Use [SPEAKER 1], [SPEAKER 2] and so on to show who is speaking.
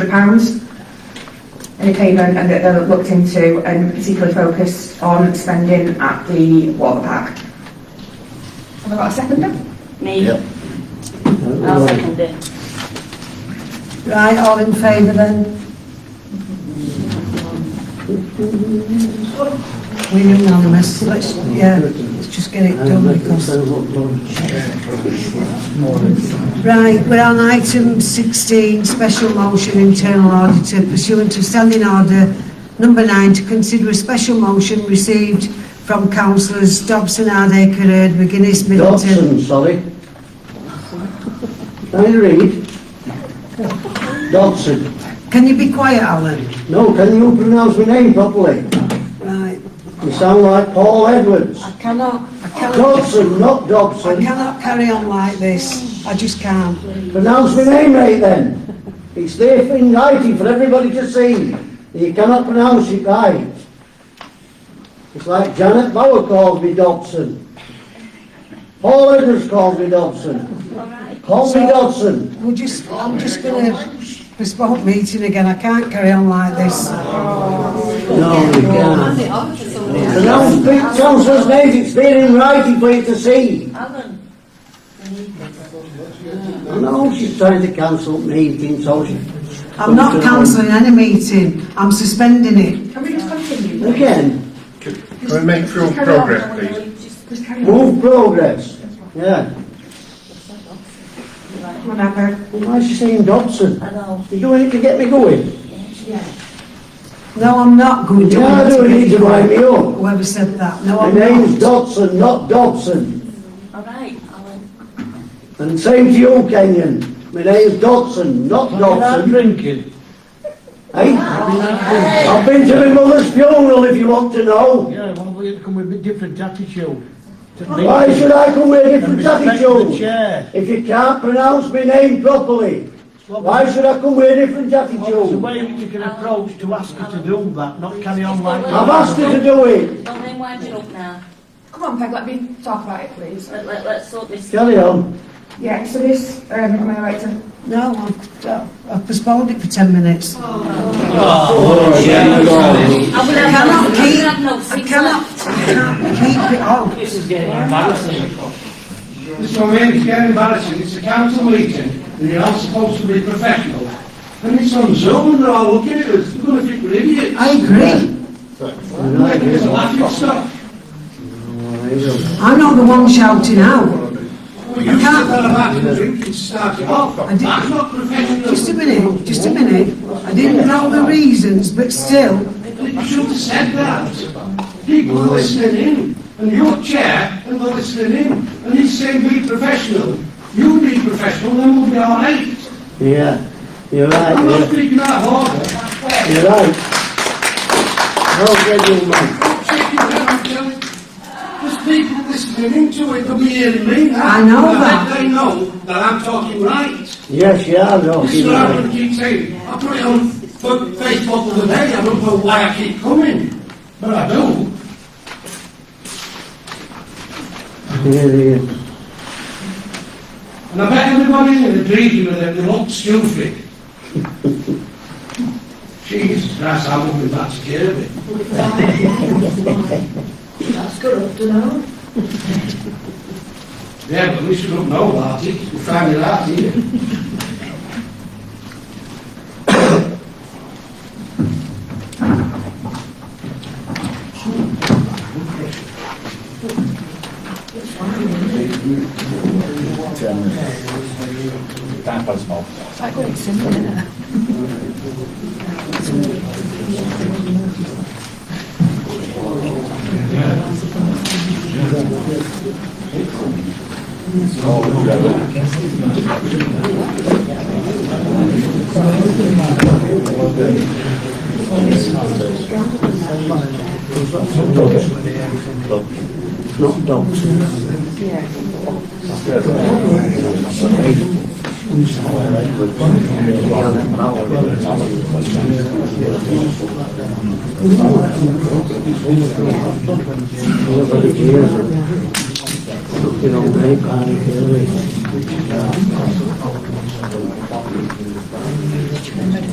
[SPEAKER 1] £300. And it came in and that they looked into and particularly focused on spending at the water park. Have I got a second then?
[SPEAKER 2] Me,
[SPEAKER 3] Yep.
[SPEAKER 2] I'll second it.
[SPEAKER 4] Right, all in favour then? We're unanimous, let's, yeah, let's just get it done because... Right, we're on item 16, special motion internal auditor pursuant to standing order number 9 to consider a special motion received from councillors Dobson, Hardacre, Heard, McGuinness, Middleton...
[SPEAKER 5] Dodson, sorry. Can I read? Dodson.
[SPEAKER 4] Can you be quiet, Alan?
[SPEAKER 5] No, can you pronounce my name properly?
[SPEAKER 4] Right,
[SPEAKER 5] You sound like Paul Edwards.
[SPEAKER 4] I cannot, I cannot...
[SPEAKER 5] Dodson, not
[SPEAKER 4] I
[SPEAKER 5] Dobson.
[SPEAKER 4] cannot carry on like this. I just can't.
[SPEAKER 5] Pronounce my name right then. It's there in writing for everybody to see. You cannot pronounce it right. It's like Janet Bauer called me Dobson. Paul Edwards called me Dobson. Call me Dodson.
[SPEAKER 4] We're just, I'm just going to postpone meeting again. I can't carry on like this.
[SPEAKER 5] No, we can't. Pronounce, pronounce those names, it's there in writing for you to see. I know she's trying to cancel meetings, so she...
[SPEAKER 4] I'm not cancelling any meeting. I'm suspending it.
[SPEAKER 1] Can we just continue?
[SPEAKER 5] Again,
[SPEAKER 3] Can we make real progress, please? Oh,
[SPEAKER 1] Just carry on.
[SPEAKER 5] move progress. Yeah.
[SPEAKER 1] Come on, Amber.
[SPEAKER 5] Why is she saying Dodson? You're doing it to get me going.
[SPEAKER 4] No, I'm not going to.
[SPEAKER 5] You are doing it to wind me up.
[SPEAKER 4] Whoever said that? No,
[SPEAKER 5] My
[SPEAKER 4] I'm
[SPEAKER 5] name's
[SPEAKER 4] not.
[SPEAKER 5] Dodson, not Dobson.
[SPEAKER 2] All right, Alan.
[SPEAKER 5] And same to you, Kenyon. My name's Dodson, not Dobson.
[SPEAKER 6] drinking.
[SPEAKER 5] Hey? I've been to my mother's funeral if you want to know.
[SPEAKER 6] Yeah, well, we come with a different attitude.
[SPEAKER 5] Why should I come with a different
[SPEAKER 6] The
[SPEAKER 5] attitude?
[SPEAKER 6] chair.
[SPEAKER 5] If you can't pronounce my name properly, why should I come with a different
[SPEAKER 6] It's a
[SPEAKER 5] attitude?
[SPEAKER 6] way you can approach to ask her to do that, not carry on like that.
[SPEAKER 5] I've asked her to do it.
[SPEAKER 2] Well, then wind it up now.
[SPEAKER 1] Come on, Peg, let me talk about it, please.
[SPEAKER 2] Let, let, let's sort this.
[SPEAKER 5] Carry on.
[SPEAKER 1] Yeah, so this, um, am I right to?
[SPEAKER 4] No, I've, I've postponed it for 10 minutes.
[SPEAKER 2] I will have
[SPEAKER 4] cannot
[SPEAKER 2] no- I
[SPEAKER 4] keep-
[SPEAKER 2] will have no
[SPEAKER 4] I
[SPEAKER 2] six
[SPEAKER 4] cannot
[SPEAKER 2] left.
[SPEAKER 4] keep it on.
[SPEAKER 7] This is getting embarrassing.
[SPEAKER 8] This moment is getting embarrassing. It's a council meeting, and you're not supposed to be professional. And it's on Zoom, and they're all looking at us. They're going to think we're idiots.
[SPEAKER 4] I agree.
[SPEAKER 5] Right,
[SPEAKER 8] It's a laughing stock.
[SPEAKER 4] I'm not the one shouting out.
[SPEAKER 8] Well, you said that about the drinking starting off.
[SPEAKER 4] I did-
[SPEAKER 8] That's not professional.
[SPEAKER 4] Just a minute, just a minute. I didn't know the reasons, but still,
[SPEAKER 8] You should have said that. People are listening in, and your chair, and they're listening in, and he's saying be professional. You be professional, then we'll be all right.
[SPEAKER 5] Yeah, you're right,
[SPEAKER 8] I'm not
[SPEAKER 5] yeah,
[SPEAKER 8] speaking out of order. That's fair.
[SPEAKER 5] you're right. Well said, young man.
[SPEAKER 8] There's people listening into it, they'll be hearing me now.
[SPEAKER 4] I know
[SPEAKER 8] And
[SPEAKER 4] that.
[SPEAKER 8] They know that I'm talking right.
[SPEAKER 5] Yes, you are, no,
[SPEAKER 8] This is
[SPEAKER 5] you're
[SPEAKER 8] what I'm going
[SPEAKER 5] right.
[SPEAKER 8] to keep saying. I put it on Fa- Facebook the other day, I don't know why I keep coming, but I do.
[SPEAKER 5] Yeah, yeah.
[SPEAKER 8] And I bet everybody in the dream with it, they look stupid. Jesus Christ, I won't be that scared of it. That's good up to now. Yeah, but we should not know about it, we found it out here.
[SPEAKER 5] you know, very panic early.